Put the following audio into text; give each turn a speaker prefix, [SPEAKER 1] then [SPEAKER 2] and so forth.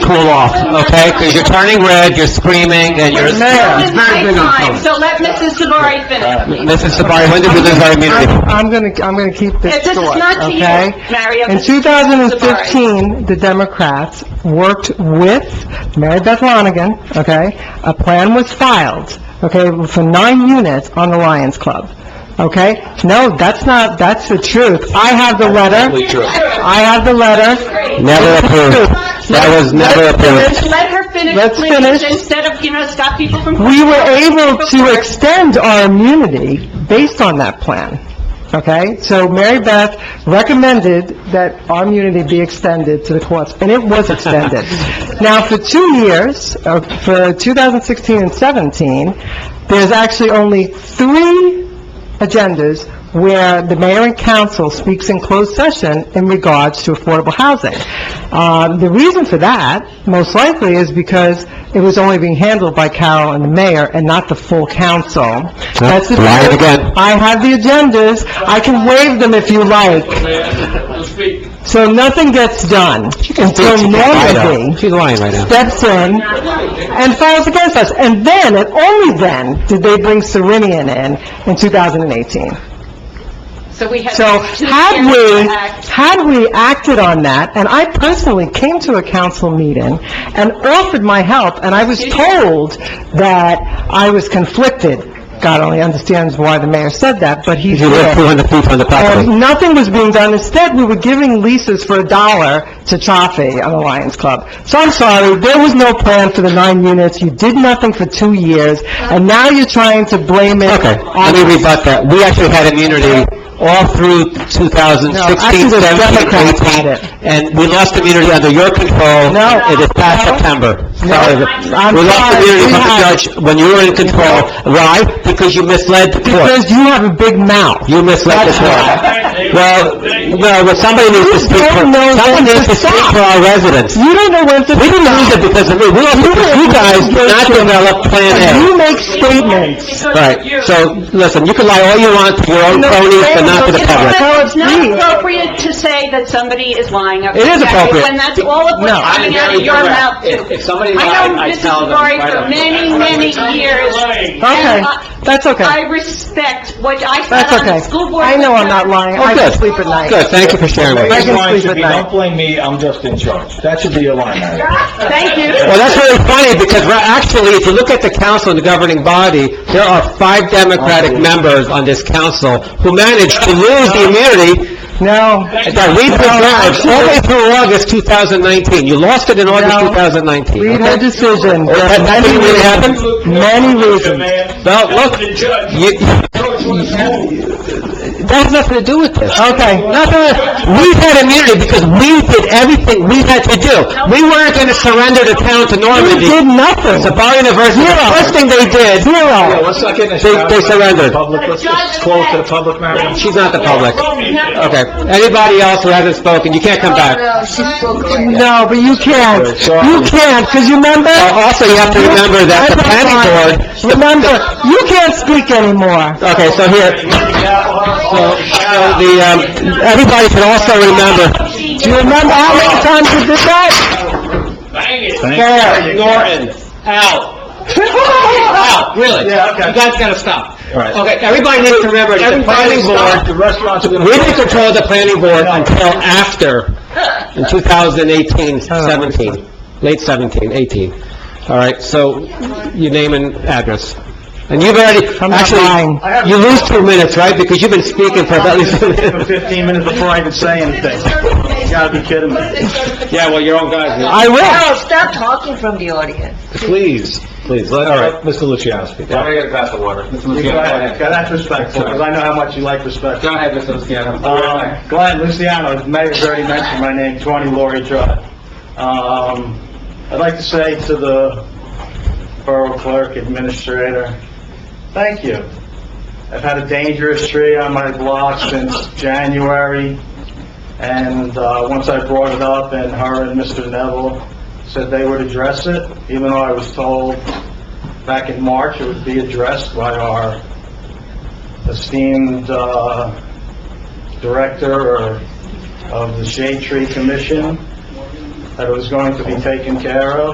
[SPEAKER 1] cool off, okay? Because you're turning red, you're screaming, and you're...
[SPEAKER 2] It's my time, so let Mrs. Savari finish.
[SPEAKER 1] Mrs. Sabari, when did we lose our immunity?
[SPEAKER 3] I'm I'm gonna, I'm gonna keep this
[SPEAKER 2] This is
[SPEAKER 3] short,
[SPEAKER 2] not to you,
[SPEAKER 3] okay?
[SPEAKER 2] Mario.
[SPEAKER 3] In 2015, the Democrats worked with Mary Beth Lonigan, okay? A plan was filed, okay, for nine units on the Lions Club, okay? No, that's not, that's the truth. I have the letter, I have the letter.
[SPEAKER 1] Never approved. That was never approved.
[SPEAKER 2] Let her finish,
[SPEAKER 3] Let's
[SPEAKER 2] please,
[SPEAKER 3] finish.
[SPEAKER 2] instead of, you know, stop people from...
[SPEAKER 3] We were able to extend our immunity based on that plan, okay? So Mary Beth recommended that our immunity be extended to the courts, and it was extended. Now, for two years, uh, for 2016 and 17, there's actually only three agendas where the mayor and council speaks in closed session in regards to affordable housing. Uh, The reason for that, most likely, is because it was only being handled by Carol and the mayor and not the full council. That's the
[SPEAKER 1] Lie it
[SPEAKER 3] truth.
[SPEAKER 1] again.
[SPEAKER 3] I have the agendas, I can waive them if you like, so nothing gets done until nobody
[SPEAKER 1] She's lying right now.
[SPEAKER 3] steps in and files against us. And then, and only then, did they bring Serenian in, in 2018.
[SPEAKER 2] So we have...
[SPEAKER 3] So
[SPEAKER 2] two
[SPEAKER 3] had
[SPEAKER 2] years
[SPEAKER 3] we,
[SPEAKER 2] to act.
[SPEAKER 3] had we acted on that, and I personally came to a council meeting and offered my help, and I was told that I was conflicted. God only understands why the mayor said that, but he
[SPEAKER 1] You live
[SPEAKER 3] did.
[SPEAKER 1] 200 feet from the property.
[SPEAKER 3] And nothing was being done. Instead, we were giving leases for a dollar to Chaffee on the Lions Club. So I'm sorry, there was no plan for the nine units. You did nothing for two years, and now you're trying to blame it
[SPEAKER 1] Okay,
[SPEAKER 3] on
[SPEAKER 1] let me rebut that. We actually had immunity all through 2016,
[SPEAKER 3] No, actually, the Democrats
[SPEAKER 1] 17,
[SPEAKER 3] had it.
[SPEAKER 1] 18, and we lost immunity under your control.
[SPEAKER 3] No.
[SPEAKER 1] It is past
[SPEAKER 3] No.
[SPEAKER 1] September.
[SPEAKER 3] No.
[SPEAKER 1] Sorry.
[SPEAKER 3] I'm
[SPEAKER 1] We lost
[SPEAKER 3] sorry,
[SPEAKER 1] immunity
[SPEAKER 3] we
[SPEAKER 1] from the
[SPEAKER 3] had-
[SPEAKER 1] judge when you were in control. Why? Because you misled the court.
[SPEAKER 3] Because you have a big mouth.
[SPEAKER 1] You misled the court. Well, well, but somebody needs to speak for,
[SPEAKER 3] don't know
[SPEAKER 1] someone
[SPEAKER 3] when to
[SPEAKER 1] needs to speak
[SPEAKER 3] stop.
[SPEAKER 1] for our residents.
[SPEAKER 3] You don't know when to...
[SPEAKER 1] We didn't lose it because of me. We lost it because you guys did not develop Plan A.
[SPEAKER 3] You make statements.
[SPEAKER 1] Right, so, listen, you can lie all you want to your own cronies, but not to the public.
[SPEAKER 3] Tell
[SPEAKER 2] It's
[SPEAKER 3] us,
[SPEAKER 2] not
[SPEAKER 3] please.
[SPEAKER 2] appropriate to say that somebody is lying.
[SPEAKER 1] It is appropriate.
[SPEAKER 2] When that's all of what's
[SPEAKER 3] No.
[SPEAKER 2] coming out of your mouth. If somebody I know Mrs. Savari for many, many years.
[SPEAKER 3] Okay,
[SPEAKER 2] And I-
[SPEAKER 3] that's
[SPEAKER 2] I
[SPEAKER 3] okay.
[SPEAKER 2] respect what I
[SPEAKER 3] That's
[SPEAKER 2] sat on the school
[SPEAKER 3] okay.
[SPEAKER 2] board.
[SPEAKER 3] I know I'm not lying. I
[SPEAKER 1] Oh,
[SPEAKER 3] can
[SPEAKER 1] good.
[SPEAKER 3] sleep at night.
[SPEAKER 1] Good, thank you for sharing with
[SPEAKER 3] I
[SPEAKER 1] us.
[SPEAKER 3] can
[SPEAKER 4] Line
[SPEAKER 3] sleep
[SPEAKER 4] should
[SPEAKER 3] at
[SPEAKER 4] be,
[SPEAKER 3] night.
[SPEAKER 4] don't blame me, I'm just in charge. That should be your line, Mayor.
[SPEAKER 2] Thank you.
[SPEAKER 1] Well, that's very funny, because we're actually, if you look at the council and the governing body, there are five Democratic members on this council who managed to lose the immunity
[SPEAKER 3] No.
[SPEAKER 1] that we preserved all the way through August 2019. You lost it in August
[SPEAKER 3] No.
[SPEAKER 1] 2019.
[SPEAKER 3] Read
[SPEAKER 1] okay?
[SPEAKER 3] her decision.
[SPEAKER 1] Well, that- that didn't really happen?
[SPEAKER 3] Many reasons.
[SPEAKER 1] Well, look, you, that has nothing to do with this.
[SPEAKER 3] Okay.
[SPEAKER 1] Nothing, we had immunity because we did everything we had to do. We weren't going to surrender the town to
[SPEAKER 3] You
[SPEAKER 1] Normandy.
[SPEAKER 3] did nothing.
[SPEAKER 1] Sabari University, the first thing they did,
[SPEAKER 3] Zero.
[SPEAKER 4] Let's not get in a
[SPEAKER 1] They-
[SPEAKER 4] shower.
[SPEAKER 1] they surrendered.
[SPEAKER 4] Public, let's let's close to the public, Mayor.
[SPEAKER 1] she's not the public. Okay, anybody else who hasn't spoken, you can't come back.
[SPEAKER 3] No, but you can't. You can't, because you remember?
[SPEAKER 1] Uh, Also, you have to remember that the planning board,
[SPEAKER 3] Remember, you can't speak anymore.
[SPEAKER 1] Okay, so here, so, so the, um, everybody can also remember,
[SPEAKER 3] Do you remember how many times you did that?
[SPEAKER 1] Fair, Norton, Al, Al, really?
[SPEAKER 4] Yeah, okay.
[SPEAKER 1] You guys gotta stop.
[SPEAKER 4] Right.
[SPEAKER 1] Okay, everybody needs to remember, that the planning
[SPEAKER 4] Everybody stop.
[SPEAKER 1] board,
[SPEAKER 4] The restaurants are going
[SPEAKER 1] we didn't
[SPEAKER 4] to...
[SPEAKER 1] control the planning board until after, in 2018,
[SPEAKER 3] Oh,
[SPEAKER 1] 17, late 17, 18. All right, so, your name and address. And you've already,
[SPEAKER 3] not lying.
[SPEAKER 1] actually, you lose two minutes, right? Because you've been speaking for about at least...
[SPEAKER 4] Fifteen minutes before I even say anything. You gotta be kidding me.
[SPEAKER 1] Yeah, well, your own guys.
[SPEAKER 3] I will.
[SPEAKER 5] No, stop talking from the audience.
[SPEAKER 4] Please, please, let, all right, Mr. Luciano. Go
[SPEAKER 6] I'm gonna get a glass of water.
[SPEAKER 4] ahead, that's respectful, because I know how much you like respect.
[SPEAKER 6] Go ahead, Mr. Luciano.
[SPEAKER 4] Uh, Glenn Luciano, the mayor's already mentioned my name, 20 Laurie Drive. Um, I'd like to say to the Borough Clerk Administrator, thank you. I've had a dangerous tree on my block since January, and uh, once I brought it up, and her and Mr. Neville said they would address it, even though I was told back in March it would be addressed by our esteemed uh, director or of the Shade Tree Commission. that it was going to be taken care of.